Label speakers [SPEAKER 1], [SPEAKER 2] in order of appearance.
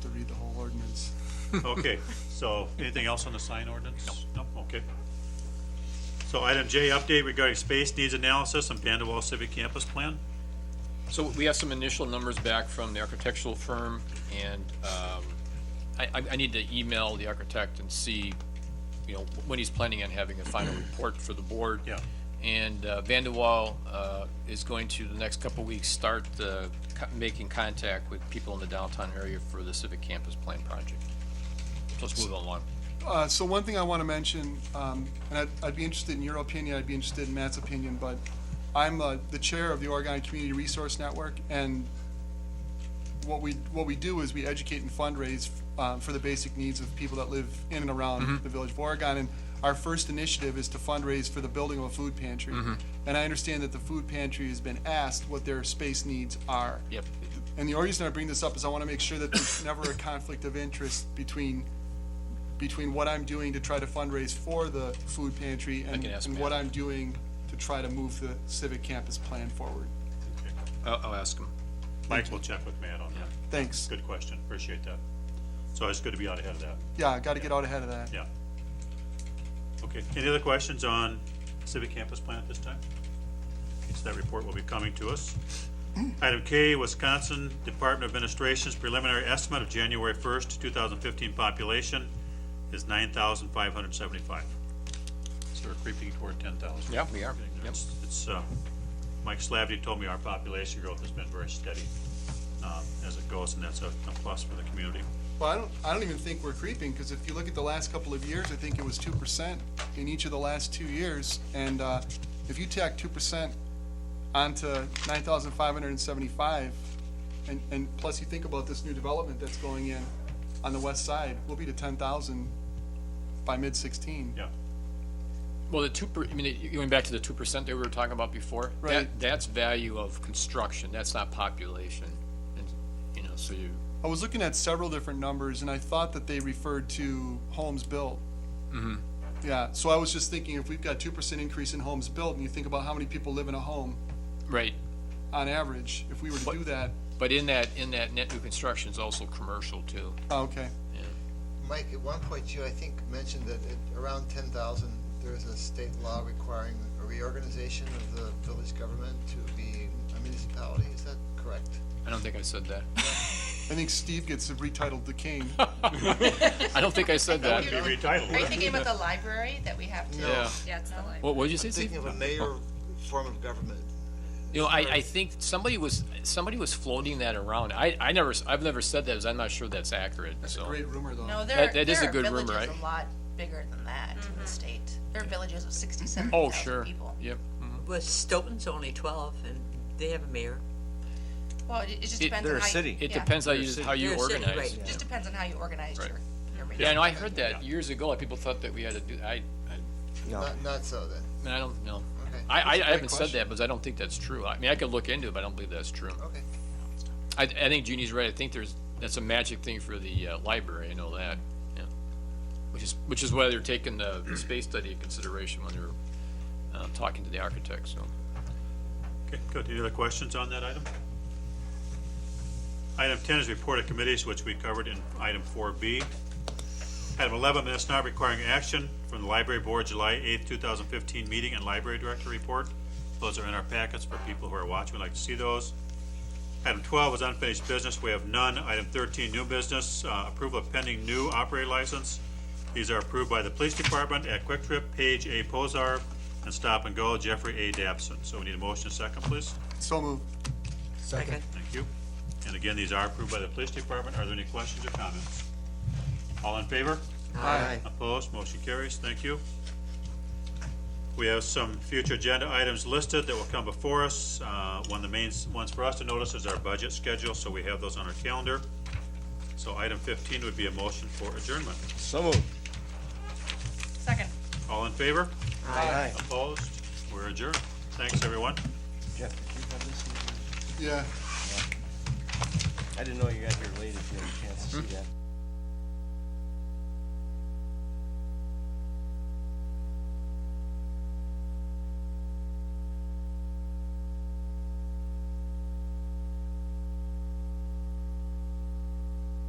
[SPEAKER 1] to read the whole ordinance.
[SPEAKER 2] Okay, so anything else on the sign ordinance? No. okay. So item J, update regarding space needs analysis and Pandawal Civic Campus Plan.
[SPEAKER 3] So we have some initial numbers back from the architectural firm, and um, I, I- I need to email the architect and see, you know, when he's planning on having a final report for the board.
[SPEAKER 2] Yeah.
[SPEAKER 3] And uh, Van de Waal, uh, is going to, the next couple weeks, start the, co- making contact with people in the downtown area for the Civic Campus Plan project. So Let's move along.
[SPEAKER 1] Uh, so one thing I want to mention, um, and I'd, I'd be interested in your opinion, I'd be interested in Matt's opinion, but I'm, uh, the chair of the Oregon Community Resource Network, and what we, what we do is we educate and fundraise, um, for the basic needs of people that live in and around the Village of Oregon, and our first initiative is to fundraise for the building of a food pantry. And I understand that the food pantry has been asked what their space needs are.
[SPEAKER 3] Yep.
[SPEAKER 1] And the only reason I bring this up is I want to make sure that there's never a conflict of interest between, between what I'm doing to try to fundraise for the food pantry and,
[SPEAKER 3] can ask
[SPEAKER 1] and what
[SPEAKER 3] Matt.
[SPEAKER 1] I'm doing to try to move the civic campus plan forward.
[SPEAKER 3] I'll, I'll ask him.
[SPEAKER 2] Mike will check with Matt on that.
[SPEAKER 1] Thanks.
[SPEAKER 2] Good question, appreciate that. So it's good to be out ahead of that,
[SPEAKER 1] Yeah, got to get out ahead of that.
[SPEAKER 2] yeah. Okay, any other questions on Civic Campus Plan at this time? Okay, So that report will be coming to us. Item K, Wisconsin Department of Administration's preliminary estimate of January 1st, 2015 population is 9,575. So we're creeping toward 10,000.
[SPEAKER 3] Yeah, we are.
[SPEAKER 2] Getting there.
[SPEAKER 3] Yep.
[SPEAKER 2] It's- It's, uh, Mike Slavety told me our population growth has been very steady uh, as it goes, and that's a a plus for the community.
[SPEAKER 1] Well, I don't, I don't even think we're creeping, because if you look at the last couple of years, I think it was two percent in each of the last two years. And, uh, if you tack two percent onto nine thousand five hundred and seventy-five, and, and plus you think about this new development that's going in on the west side, we'll be to ten thousand by mid-sixteen.
[SPEAKER 2] Yeah.
[SPEAKER 3] Well, the two, per- I mean, you- going back to the two percent that we were talking about before. that-
[SPEAKER 1] Right.
[SPEAKER 3] That's value of construction, that's not population, and, you know, so you,
[SPEAKER 1] I was looking at several different numbers, and I thought that they referred to homes built. Yeah, so I was just thinking, if we've got two percent increase in homes built, and you think about how many people live in a home,
[SPEAKER 3] right,
[SPEAKER 1] on average, if we were to do that,
[SPEAKER 3] but in that, in that net new construction is also commercial too.
[SPEAKER 1] oh, okay.
[SPEAKER 4] Mike, at one point you, I think, mentioned that at around ten thousand, there is a state law requiring a reorganization of the village government to be a municipality, is that correct?
[SPEAKER 3] I don't think I said that.
[SPEAKER 1] I think Steve gets retitled the king.
[SPEAKER 3] I don't think I said that.
[SPEAKER 2] Be retitled.
[SPEAKER 5] Are you thinking about the library that we have to?
[SPEAKER 4] No.
[SPEAKER 3] Yeah.
[SPEAKER 5] Yeah, it's the library.
[SPEAKER 3] What, what did you say, Steve?
[SPEAKER 4] Thinking of a mayor form of government.
[SPEAKER 3] You know, I, I think somebody was, somebody was floating that around. I, I never, s- I've never said that, 'cause I'm not sure that's accurate, so.
[SPEAKER 1] Great rumor, though.
[SPEAKER 5] No, there,
[SPEAKER 3] That-
[SPEAKER 5] are-
[SPEAKER 3] that is
[SPEAKER 5] there
[SPEAKER 3] a
[SPEAKER 5] are
[SPEAKER 3] good rumor,
[SPEAKER 5] villages
[SPEAKER 3] right?
[SPEAKER 5] a lot bigger than that in the state. There are villages of sixty-seven
[SPEAKER 3] Oh,
[SPEAKER 5] thousand
[SPEAKER 3] sure,
[SPEAKER 5] people.
[SPEAKER 3] yep.
[SPEAKER 6] Well, Stoughton's only twelve, and they have a mayor.
[SPEAKER 5] Well, it, it just
[SPEAKER 3] It-
[SPEAKER 5] depends
[SPEAKER 3] they're
[SPEAKER 5] on
[SPEAKER 3] a
[SPEAKER 5] how. you-
[SPEAKER 7] city.
[SPEAKER 3] It
[SPEAKER 5] yeah.
[SPEAKER 3] depends how you, how you
[SPEAKER 6] They're a city,
[SPEAKER 3] organize.
[SPEAKER 6] right.
[SPEAKER 5] It Just depends on how you organize
[SPEAKER 3] Right.
[SPEAKER 5] your, your meeting.
[SPEAKER 3] Yeah, I know, I heard that years ago, and people thought that we had to do, I, I,
[SPEAKER 4] Not, not so then,
[SPEAKER 3] I don't know.
[SPEAKER 4] okay.
[SPEAKER 3] I, I, I
[SPEAKER 1] great
[SPEAKER 3] haven't said
[SPEAKER 1] question.
[SPEAKER 3] that, because I don't think that's true. I mean, I could look into it, but I don't believe that's true.
[SPEAKER 4] Okay,
[SPEAKER 3] I, I think Jeannie's right. I think there's, that's a magic thing for the, uh, library, I know that, yeah. Which is, which is why they're taking the the space study into consideration when they're, uh, talking to the architect, so.
[SPEAKER 2] Okay, good. Any other questions on that item? Item ten is report of committees, which we covered in item four B. Item eleven, minutes not requiring action from the library board, July eighth, two thousand fifteen meeting and library director report. Those are in our packets for people who are watching, would like to see those. Item twelve is unfinished business, we have none. Item thirteen, new business, uh, approval of pending new operator license. These are approved by the police department at Quick Trip, Page A. Posar, and Stop and Go, Jeffrey A. Dabson. So we need a motion, and a second, please.
[SPEAKER 1] So moved.
[SPEAKER 6] Second.
[SPEAKER 2] Thank you. And again, these are approved by the police department. Are there any questions or comments? All in favor?
[SPEAKER 1] Aye.
[SPEAKER 2] Opposed? Motion carries. Thank you. We have some future agenda items listed that will come before us. Uh, One of the main ones for us to notice is our budget schedule, so we have those on our calendar. So item 15 would be a motion for adjournment.
[SPEAKER 7] So moved.
[SPEAKER 5] Second.
[SPEAKER 2] All in favor?
[SPEAKER 7] Aye.
[SPEAKER 2] Opposed? We're adjourned. Thanks, everyone.
[SPEAKER 7] Jeff, did you have
[SPEAKER 1] Yeah.
[SPEAKER 7] this? I didn't know you got here late. if you-